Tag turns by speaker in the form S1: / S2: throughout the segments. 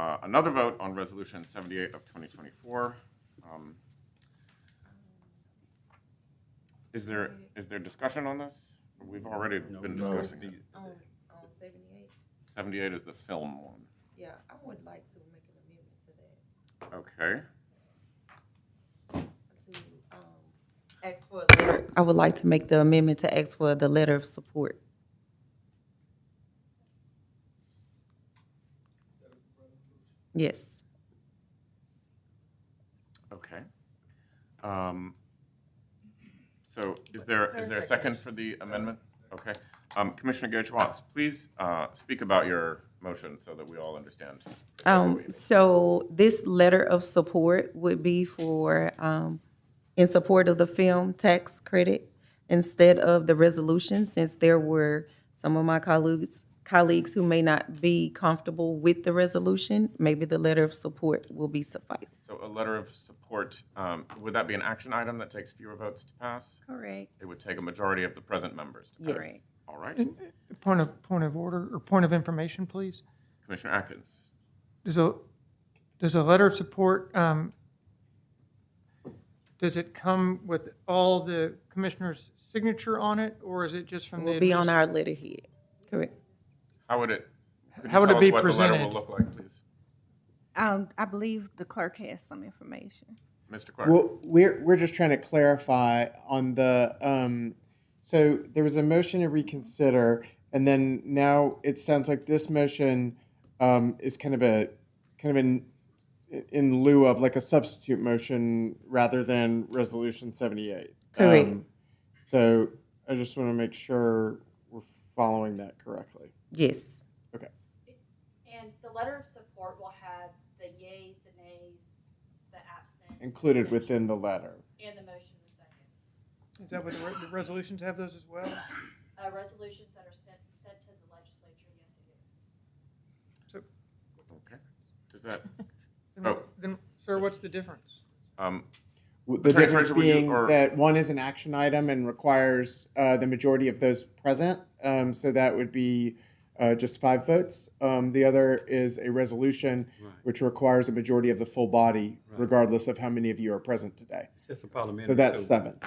S1: Uh, Another vote on Resolution 78 of 2024. Um, Is there, is there discussion on this? We've already been
S2: No.
S1: discussing it.
S3: On, on Um, seventy-eight,
S1: 78 is the film one.
S3: yeah, I would like to make an amendment to that,
S1: Okay.
S3: to, um, ask for a letter. I would like to make the amendment to ask for the letter of support. Yes,
S1: Okay. Um, So is there, is there a second for the amendment? Okay. Um, Commissioner Gage Watts, please uh, speak about your motion so that we all understand.
S3: um, so this letter of support would be for, um, in support of the film tax credit instead of the resolution, since there were some of my colleagues, colleagues who may not be comfortable with the resolution, maybe the letter of support will be suffice.
S1: So a letter of support, um, would that be an action item that takes fewer votes to pass?
S4: Correct.
S1: It would take a majority of the present members to pass.
S3: Yes. Mm-hmm.
S1: All right.
S5: Point of, point of order, or point of information, please.
S1: Commissioner Atkins.
S5: Does a, does a letter of support, um, does it come with all the commissioner's signature on it, or is it just from the?
S3: Will be on our letterhead, correct?
S1: How would it? could you
S5: How would it
S1: tell us
S5: be
S1: What the letter will
S5: presented?
S1: look like, please.
S4: Um, I believe the clerk has some information.
S1: Mr. Clark.
S6: Well, we're we're just trying to clarify on the um, so there was a motion to reconsider, and then now it sounds like this motion um, is kind of a kind of in in lieu of like a substitute motion rather than resolution seventy eight.
S3: Correct.
S6: so I just want to make sure we're following that correctly.
S3: Yes,
S7: And the letter of support will have the yays, the nays, the absent.
S6: Included within the
S7: abstentions,
S6: letter.
S7: And the motion in the seconds.
S5: Is that what the re- the resolutions have those as well?
S7: Uh, resolutions that are sent, sent to the legislature, yes, it is.
S1: Okay. Does that,
S5: Then-
S1: Oh.
S5: Then, sir, what's the difference?
S1: um,
S6: W- The
S1: Attorney
S6: difference
S1: Fraser, would you-
S6: being
S1: or-
S6: that one is an action item and requires uh, the majority of those present. Um, so that would be uh, just five votes. Um, the other is a resolution, which requires a majority of the full body, regardless of how many of you are present today.
S2: Just a parliamentary.
S6: So that's seven.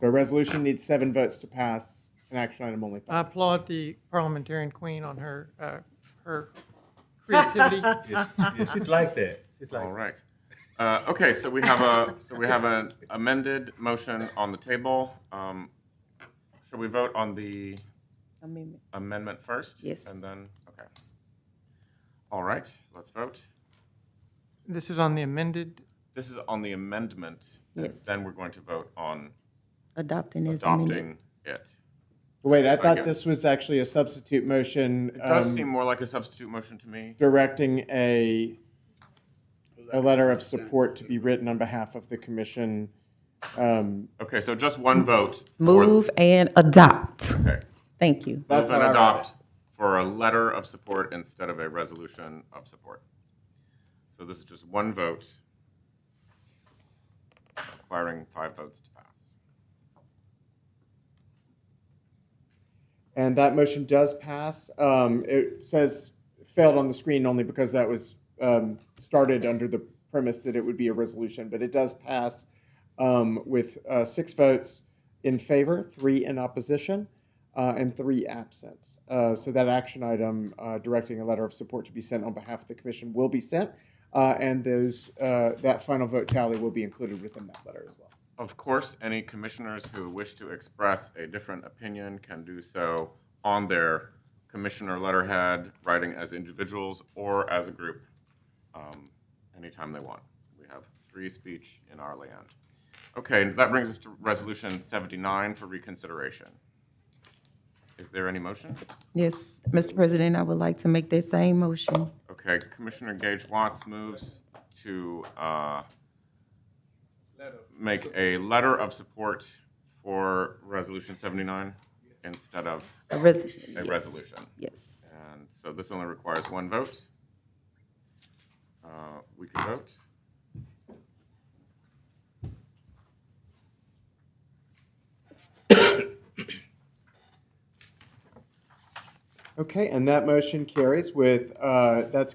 S6: So a resolution needs seven votes to pass, an action item only
S5: I
S6: five.
S5: applaud the parliamentarian queen on her, uh, her creativity.
S2: Yes, yes, She's like that. She's like
S1: all
S2: that.
S1: right. Uh, okay, so we have a, so we have an amended motion on the table. Um, shall we vote on the
S3: amendment,
S1: amendment first?
S3: Yes.
S1: And then, okay. All right, let's vote.
S5: This is on the amended,
S1: This is on the amendment. and
S3: Yes.
S1: Then we're going to vote on
S3: adopting is amended.
S1: adopting it.
S6: Wait, I
S1: Okay.
S6: thought this was actually a substitute motion.
S1: It does
S6: um,
S1: seem more like a substitute motion to me.
S6: directing a, a letter of support to be written on behalf of the commission. Um,
S1: Okay, so just one vote. for-
S3: Move and adopt.
S1: Okay.
S3: Thank you.
S6: That's
S1: Move and
S6: how I read
S1: adopt for a letter of support instead of a resolution of support. So this is just one vote requiring five votes to pass.
S6: And that motion does pass. Um, It says failed on the screen only because that was um, started under the premise that it would be a resolution, but it does pass um, with uh, six votes in favor, three in opposition, uh, and three absent. Uh, So that action item uh, directing a letter of support to be sent on behalf of the commission will be sent, uh, and those, uh, that final vote tally will be included within that letter as well.
S1: Of course, any commissioners who wish to express a different opinion can do so on their commissioner letterhead, writing as individuals or as a group, um, anytime they want. We have free speech in our land. Okay, that brings us to Resolution 79 for reconsideration. Is there any motion?
S3: Yes, Mr. President, I would like to make that same motion.
S1: Okay, Commissioner Gage Watts moves to uh, make a letter of support for Resolution 79 instead of
S3: A res-
S1: a
S3: yes,
S1: resolution.
S3: Yes,
S1: And so this only requires one vote. Uh, We can vote.
S6: Okay, and that motion carries with, uh, that's